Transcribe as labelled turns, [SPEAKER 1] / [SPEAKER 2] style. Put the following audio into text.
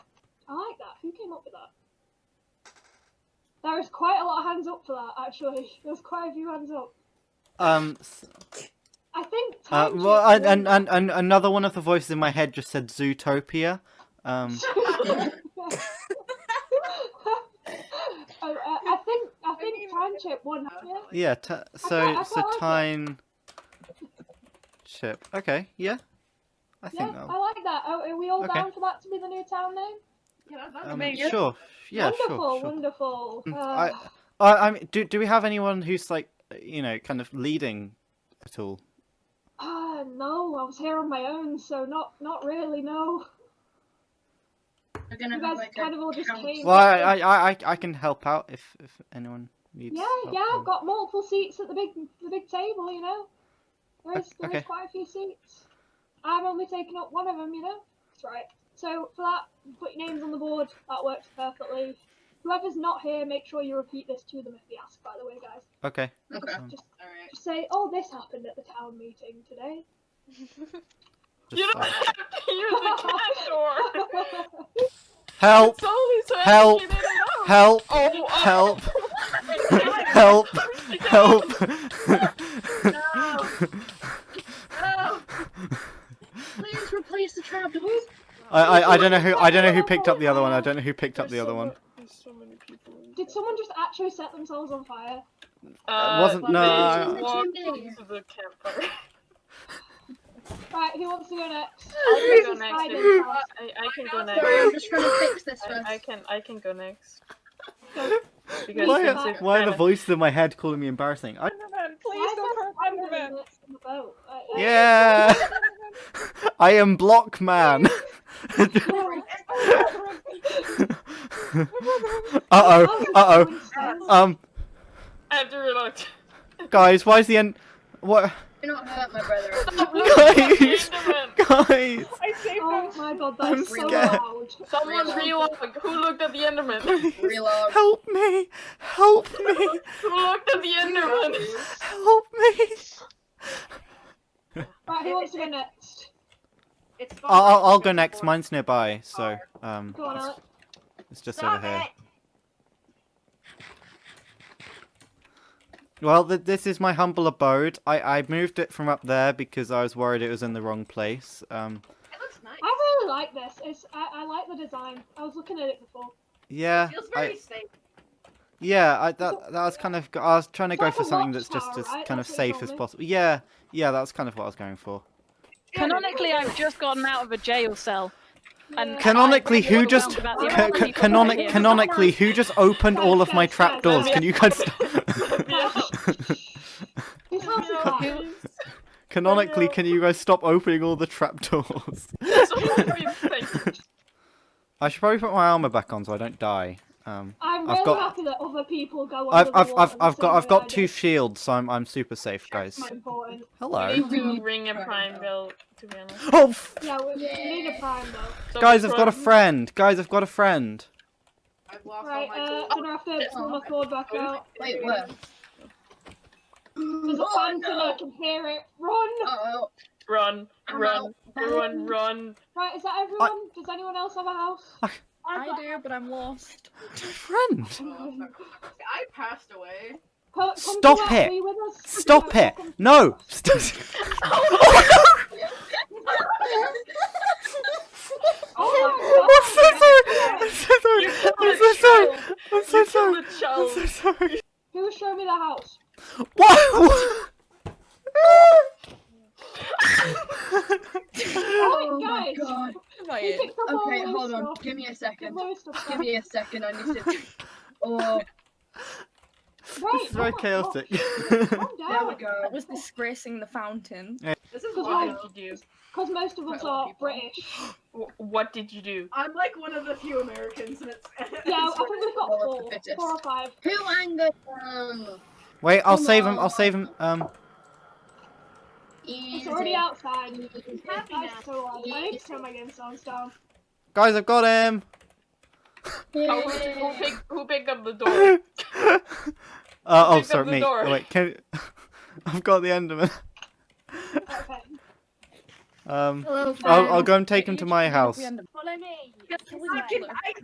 [SPEAKER 1] I like that. Who came up with that? There is quite a lot of hands up for that, actually. There's quite a few hands up.
[SPEAKER 2] Um, s-
[SPEAKER 1] I think.
[SPEAKER 2] uh,
[SPEAKER 1] time
[SPEAKER 2] well,
[SPEAKER 1] shift
[SPEAKER 2] and, and,
[SPEAKER 1] was-
[SPEAKER 2] and, and another one of the voices in my head just said Zootopia. Um,
[SPEAKER 1] Oh, uh, I think I think
[SPEAKER 3] even
[SPEAKER 1] time
[SPEAKER 3] get
[SPEAKER 1] chip won.
[SPEAKER 3] that.
[SPEAKER 1] Yeah.
[SPEAKER 2] yeah. T- so
[SPEAKER 1] quite- I
[SPEAKER 2] so
[SPEAKER 1] quite like it.
[SPEAKER 2] time ship. Okay. Yeah. I
[SPEAKER 1] Yeah,
[SPEAKER 2] think
[SPEAKER 1] I like that. Oh, are we all
[SPEAKER 2] Okay.
[SPEAKER 1] down for that to be the new town name?
[SPEAKER 3] Yeah, that- that's
[SPEAKER 2] that'll. Um,
[SPEAKER 3] amazing.
[SPEAKER 2] sure. Yeah. Sure.
[SPEAKER 1] wonderful,
[SPEAKER 2] Sure.
[SPEAKER 1] wonderful.
[SPEAKER 2] Mm,
[SPEAKER 1] Uh,
[SPEAKER 2] I, I, I mean, do do we have anyone who's like you know kind of leading at all?
[SPEAKER 1] ah, no, I was here on my own, so not not really. No,
[SPEAKER 4] We're gonna
[SPEAKER 1] you
[SPEAKER 4] have
[SPEAKER 1] guys
[SPEAKER 4] like
[SPEAKER 1] kind
[SPEAKER 4] a
[SPEAKER 1] of all just
[SPEAKER 4] count.
[SPEAKER 1] came.
[SPEAKER 2] Well, I I, I, I- I can help out if if anyone needs.
[SPEAKER 1] yeah,
[SPEAKER 2] help,
[SPEAKER 1] yeah,
[SPEAKER 2] or-
[SPEAKER 1] I've got multiple seats at the big the big table. You know, there is there is
[SPEAKER 2] Okay.
[SPEAKER 1] quite a few seats. I'm only taking up one of them. You know, that's right. So for that, put your names on the board. That works perfectly. Whoever's not here, make sure you repeat this to them if they ask. By the way, guys,
[SPEAKER 2] Okay.
[SPEAKER 4] Okay.
[SPEAKER 2] Um,
[SPEAKER 1] just
[SPEAKER 4] All right.
[SPEAKER 1] just say, "Oh, this happened at the town meeting today."
[SPEAKER 3] You
[SPEAKER 2] just, uh,
[SPEAKER 3] don't have to use the cash door.
[SPEAKER 2] help!
[SPEAKER 3] It's only so
[SPEAKER 2] Help.
[SPEAKER 3] you didn't know.
[SPEAKER 2] Help!
[SPEAKER 3] Oh, oh.
[SPEAKER 2] Help! help!
[SPEAKER 3] No,
[SPEAKER 2] Help!
[SPEAKER 3] no.
[SPEAKER 4] Please replace the trapdoors.
[SPEAKER 2] I, I I don't know who I don't know who picked up the other one. I don't know who picked up
[SPEAKER 3] There's
[SPEAKER 2] the other
[SPEAKER 3] so
[SPEAKER 2] one.
[SPEAKER 3] mu- There's so many people.
[SPEAKER 1] Did someone just actually set themselves on fire?
[SPEAKER 3] Uh,
[SPEAKER 2] wasn't- no, uh,
[SPEAKER 3] let me
[SPEAKER 4] I-
[SPEAKER 3] just walk
[SPEAKER 4] I-
[SPEAKER 3] into the campfire.
[SPEAKER 1] Right, who wants to go next?
[SPEAKER 3] I can go
[SPEAKER 1] This is
[SPEAKER 3] next.
[SPEAKER 1] Ida's
[SPEAKER 3] if-
[SPEAKER 1] house.
[SPEAKER 3] I, I can go next.
[SPEAKER 4] Sorry, I'm just trying to fix this first.
[SPEAKER 3] I, I can I can go next. Because since
[SPEAKER 2] Why,
[SPEAKER 3] if
[SPEAKER 2] why are the
[SPEAKER 3] Anna-
[SPEAKER 2] voices in my head calling me embarrassing? I,
[SPEAKER 3] Enderman,
[SPEAKER 1] Why
[SPEAKER 3] please
[SPEAKER 1] is
[SPEAKER 3] don't
[SPEAKER 1] there
[SPEAKER 3] hurt
[SPEAKER 1] one
[SPEAKER 3] Enderman.
[SPEAKER 1] that's in the boat? Like, like,
[SPEAKER 2] yeah, I am Block Man. uh oh, uh
[SPEAKER 1] someone said-
[SPEAKER 2] oh. Um,
[SPEAKER 3] Andrew looked.
[SPEAKER 2] guys, why is the end? What,
[SPEAKER 4] You're not hurt, my brother.
[SPEAKER 2] guys?
[SPEAKER 3] Enderman.
[SPEAKER 2] Guys,
[SPEAKER 3] I saved
[SPEAKER 1] Oh
[SPEAKER 3] him.
[SPEAKER 1] my god, that's
[SPEAKER 2] I'm
[SPEAKER 1] so
[SPEAKER 2] scared.
[SPEAKER 1] loud.
[SPEAKER 3] Someone
[SPEAKER 4] Reload.
[SPEAKER 3] relog. Who looked at the Enderman?
[SPEAKER 4] Reload.
[SPEAKER 2] help me! Help me!
[SPEAKER 3] Who looked at the Enderman?
[SPEAKER 2] Help me!
[SPEAKER 1] Right, who wants to go next?
[SPEAKER 3] It's
[SPEAKER 2] I'll, I'll, I'll go next. Mine's nearby, so um,
[SPEAKER 1] Go on,
[SPEAKER 2] it's,
[SPEAKER 1] Alex.
[SPEAKER 2] it's just
[SPEAKER 3] Stop
[SPEAKER 2] over here. Well, th- this is my humble abode. I I moved it from up there because I was worried it was in the wrong place. Um,
[SPEAKER 4] It looks nice.
[SPEAKER 1] I really like this. It's I, I like the design. I was looking at it before.
[SPEAKER 2] yeah,
[SPEAKER 4] Feels
[SPEAKER 2] I,
[SPEAKER 4] very safe.
[SPEAKER 2] yeah. I that that was kind of. I was trying to
[SPEAKER 1] It's
[SPEAKER 2] go
[SPEAKER 1] like
[SPEAKER 2] for
[SPEAKER 1] a
[SPEAKER 2] something that's just
[SPEAKER 1] watchtower,
[SPEAKER 2] as
[SPEAKER 1] right?
[SPEAKER 2] kind of
[SPEAKER 1] That's what you
[SPEAKER 2] safe as
[SPEAKER 1] told me.
[SPEAKER 2] possible. Yeah, yeah. That's kind of what I was going for.
[SPEAKER 5] Canonically, I've just gotten out of a jail cell. And
[SPEAKER 1] Yeah.
[SPEAKER 2] Canonically,
[SPEAKER 5] I'm really
[SPEAKER 2] who just
[SPEAKER 5] overwhelmed
[SPEAKER 2] ca-
[SPEAKER 5] about
[SPEAKER 2] ca-
[SPEAKER 5] the amount of people
[SPEAKER 2] canonic-
[SPEAKER 5] here.
[SPEAKER 2] canonically who just opened
[SPEAKER 1] Guys,
[SPEAKER 2] all of
[SPEAKER 1] guys,
[SPEAKER 2] my
[SPEAKER 1] guys,
[SPEAKER 2] trapdoors?
[SPEAKER 3] guys.
[SPEAKER 2] Can you guys stop?
[SPEAKER 1] Whose house is that?
[SPEAKER 3] Who?
[SPEAKER 2] Canonically,
[SPEAKER 3] no.
[SPEAKER 2] can you guys stop opening all the trapdoors? I should probably put my armor back on so I don't die. Um,
[SPEAKER 1] I'm
[SPEAKER 2] I've
[SPEAKER 1] really
[SPEAKER 2] got-
[SPEAKER 1] happy that other people go
[SPEAKER 2] I've
[SPEAKER 1] under the
[SPEAKER 2] I've
[SPEAKER 1] water
[SPEAKER 2] I've,
[SPEAKER 1] the
[SPEAKER 2] I've
[SPEAKER 1] same
[SPEAKER 2] got I've
[SPEAKER 1] way I
[SPEAKER 2] got
[SPEAKER 1] do.
[SPEAKER 2] two shields, so I'm I'm super safe, guys.
[SPEAKER 1] It's important.
[SPEAKER 2] Hello,
[SPEAKER 3] need to ring a prime bell, to be honest.
[SPEAKER 2] oh f-
[SPEAKER 1] Yeah, we, we need a prime though.
[SPEAKER 3] So
[SPEAKER 2] guys, I've got a
[SPEAKER 3] from-
[SPEAKER 2] friend. Guys, I've got a friend.
[SPEAKER 3] I've lost
[SPEAKER 1] Right, uh,
[SPEAKER 4] Oh,
[SPEAKER 3] tools.
[SPEAKER 1] gonna have to pull my cord back out.
[SPEAKER 4] Wait, what?
[SPEAKER 1] There's a
[SPEAKER 4] Oh,
[SPEAKER 1] phantom, I
[SPEAKER 4] no.
[SPEAKER 1] can hear it. Run!
[SPEAKER 4] Uh-oh.
[SPEAKER 3] Run,
[SPEAKER 4] I'm
[SPEAKER 3] run,
[SPEAKER 4] out.
[SPEAKER 3] everyone, run.
[SPEAKER 1] Right, is that everyone? Does anyone else have a house?
[SPEAKER 6] I do, but I'm lost.
[SPEAKER 2] Friend,
[SPEAKER 3] I passed away.
[SPEAKER 1] Co- come
[SPEAKER 2] Stop
[SPEAKER 1] to work,
[SPEAKER 2] it.
[SPEAKER 1] are you with us?
[SPEAKER 2] stop
[SPEAKER 1] No,
[SPEAKER 2] it!
[SPEAKER 1] come-
[SPEAKER 2] No, St- I'm so
[SPEAKER 1] Oh my god.
[SPEAKER 2] sorry. I'm so sorry. I'm so sorry. I'm so sorry.
[SPEAKER 3] The
[SPEAKER 2] I'm
[SPEAKER 3] child.
[SPEAKER 2] so sorry.
[SPEAKER 1] Who showed me the house?
[SPEAKER 2] What?
[SPEAKER 1] Oh,
[SPEAKER 4] Oh my
[SPEAKER 1] guys!
[SPEAKER 4] god.
[SPEAKER 1] You
[SPEAKER 6] Right.
[SPEAKER 1] picked up all
[SPEAKER 4] Okay,
[SPEAKER 1] Lou's
[SPEAKER 4] hold on.
[SPEAKER 1] stuff.
[SPEAKER 4] Give me a
[SPEAKER 1] Give
[SPEAKER 4] second.
[SPEAKER 1] Lou's stuff
[SPEAKER 4] Give
[SPEAKER 1] back.
[SPEAKER 4] me a second. I need to. Oh,
[SPEAKER 1] Right,
[SPEAKER 2] This is
[SPEAKER 1] oh
[SPEAKER 2] very
[SPEAKER 1] my
[SPEAKER 2] chaotic.
[SPEAKER 1] God. Calm
[SPEAKER 4] there we
[SPEAKER 1] down.
[SPEAKER 4] go.
[SPEAKER 6] That was disgracing the fountain.
[SPEAKER 3] This is
[SPEAKER 1] Cause
[SPEAKER 3] what
[SPEAKER 1] like-
[SPEAKER 3] did you
[SPEAKER 1] Because most of us
[SPEAKER 6] Quite a lot of people.
[SPEAKER 1] are British.
[SPEAKER 3] do? Wh- What did you do?
[SPEAKER 7] I'm like one of the few Americans, and it's.
[SPEAKER 1] Yeah, I think we've got
[SPEAKER 4] Well, it's
[SPEAKER 1] four.
[SPEAKER 4] the fittest.
[SPEAKER 1] Four or five.
[SPEAKER 4] Who angered them?
[SPEAKER 2] Wait, I'll
[SPEAKER 4] Come
[SPEAKER 2] save him.
[SPEAKER 4] on.
[SPEAKER 2] I'll save him. Um,
[SPEAKER 4] Easy.
[SPEAKER 1] It's already outside.
[SPEAKER 4] Easy.
[SPEAKER 1] That's so loud. I need to turn my game sounds down.
[SPEAKER 2] guys, I've got him.
[SPEAKER 3] Oh,
[SPEAKER 4] Yay.
[SPEAKER 3] who, pick, who picked up the door?
[SPEAKER 2] uh, oh,
[SPEAKER 3] Pick up
[SPEAKER 2] sorry,
[SPEAKER 3] the
[SPEAKER 2] me.
[SPEAKER 3] door.
[SPEAKER 2] Oh, wait, can I've got the Enderman.
[SPEAKER 1] Okay.
[SPEAKER 2] Um,
[SPEAKER 4] Hello,
[SPEAKER 3] Oh,
[SPEAKER 2] I'll, I'll go and take him to my house.
[SPEAKER 7] I can, I